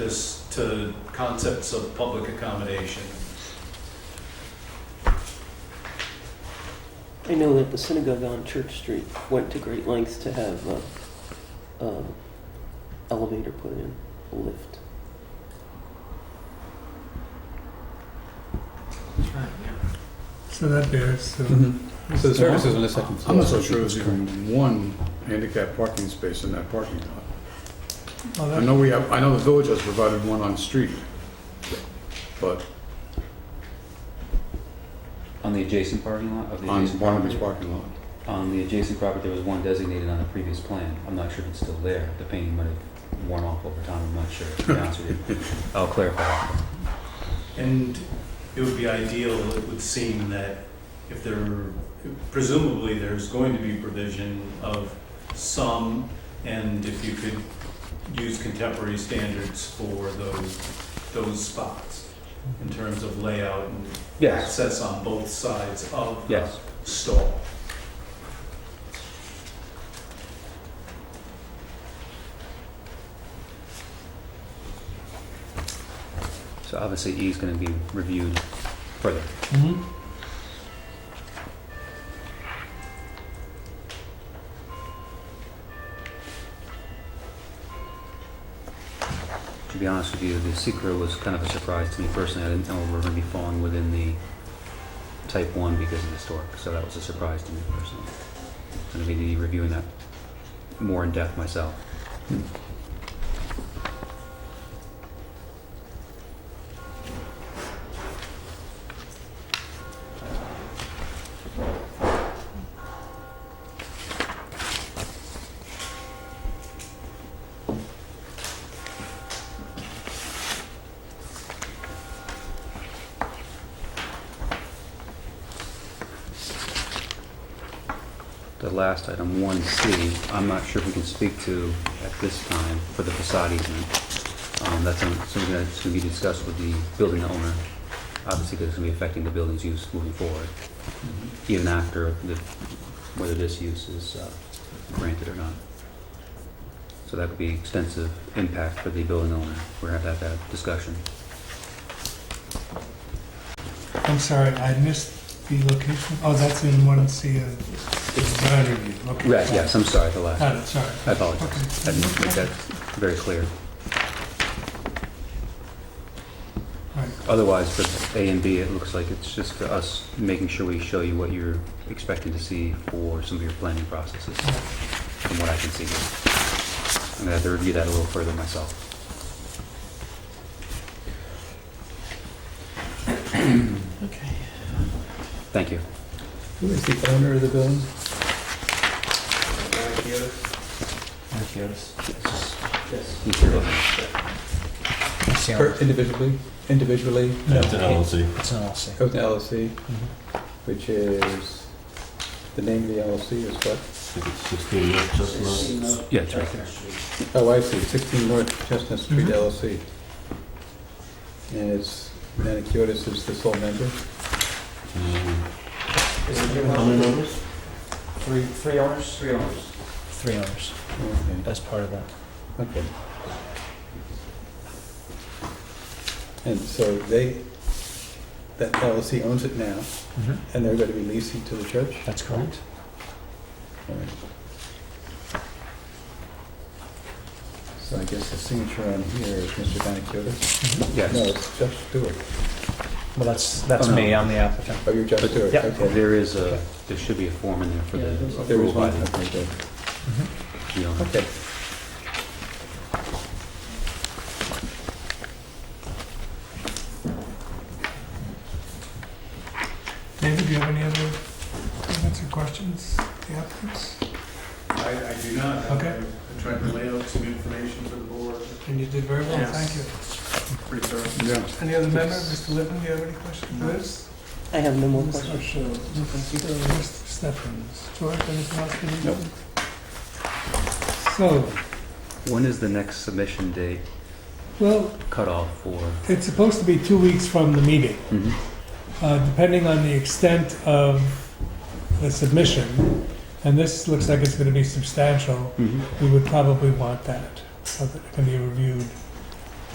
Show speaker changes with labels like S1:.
S1: to concepts of public accommodation.
S2: I know that the synagogue on Church Street went to great lengths to have uh, um, elevator put in, a lift.
S3: So that bears, so.
S4: Mm-hmm. So the service is on the second floor.
S5: I'm not so sure there's even one handicap parking space in that parking lot.
S3: Oh,
S5: I
S3: that-
S5: know we have, I know the village has provided one on street, but
S4: On the adjacent parking lot of the
S5: on
S4: adjacent
S5: Barnaby's
S4: property?
S5: parking lot.
S4: On the adjacent property, there was one designated on the previous plan. I'm not sure if it's still there. The painting might have worn off over time. I'm not sure. To be honest with you, I'll clarify. that.
S1: And it would be ideal, it would seem that if there, presumably there's going to be provision of some, and if you could use contemporary standards for those, those spots in terms of layout and
S4: Yes.
S1: access on both sides of the
S4: Yes.
S1: stall.
S4: So obviously, E is going to be reviewed further.
S3: Mhm.
S4: To be honest with you, the secret was kind of a surprise to me personally. I didn't know we were going to be falling within the type one because of the stork. So that was a surprise to me personally. I'm going to be reviewing that more in depth myself. The last item, 1C, I'm not sure if we can speak to at this time for the facade easement. Um, That's some- something that's going to be discussed with the building owner, obviously because it's going to be affecting the building's use moving forward, even after the, whether this use is uh, granted or not. So that would be extensive impact for the building owner. We're going to have to have that discussion.
S3: I'm sorry, I missed the location. Oh, that's in one C of design review. Okay.
S4: Right, yes, I'm sorry, the last.
S3: Got it, sorry.
S4: I apologize.
S3: Okay.
S4: I didn't make that very clear.
S3: Right.
S4: Otherwise, for A and B, it looks like it's just for us making sure we show you what you're expecting to see for some of your planning processes, from what I can see here. I'm gonna have to review that a little further myself.
S6: Okay.
S4: Thank you.
S7: Who is the owner of the building?
S6: Yes.
S4: You can go ahead.
S7: Per- Individually, individually,
S3: No,
S6: It's an LLC.
S7: goes to LLC, which is, the name of the LLC is what?
S4: Yeah, it's right there.
S7: Oh, I see, 16 North Chestnut Street LLC. And it's, Maniciotis is the sole member?
S6: Is it your one? How many members? Three, three owners? Three owners. Three owners,
S7: Okay,
S6: as part of that.
S7: Okay. And so they, that LLC owns it now,
S6: Mm-hmm.
S7: and they're going to be leasing to the church?
S6: That's correct.
S7: All right. So I guess the signature on here is Mr. Banakiotis? No,
S4: Yes.
S7: it's Jeff Stewart.
S6: Well, that's, that's
S4: Oh, no.
S6: me, I'm the applicant.
S7: Oh, you're Jeff Stewart?
S6: Yep.
S7: Okay.
S4: There is a, there should be a form in there for the
S7: There
S4: approval
S7: is
S4: by
S7: one,
S4: the
S7: okay, good.
S4: the owner.
S7: Okay.
S3: David, do you have any other comments or questions? The applicants?
S1: I, I do not. I-
S3: Okay.
S1: I tried to lay out some information for the board,
S3: And you did very well,
S6: Yes.
S3: thank you.
S1: pretty thorough.
S5: Yeah.
S3: Any other member, Mr. Lippman, do you have any questions? Liz?
S2: I have no more
S3: Mr.
S2: questions.
S3: Shaw, Mr. Stephens, George, anything else you need?
S7: Nope.
S3: So,
S4: When is the next submission date
S3: well,
S4: cutoff for?
S3: it's supposed to be two weeks from the meeting.
S4: Mhm.
S3: Uh, depending on the extent of the submission, and this
S4: Mm-hmm.
S3: looks like it's gonna be substantial, we would probably want that, so that it can be reviewed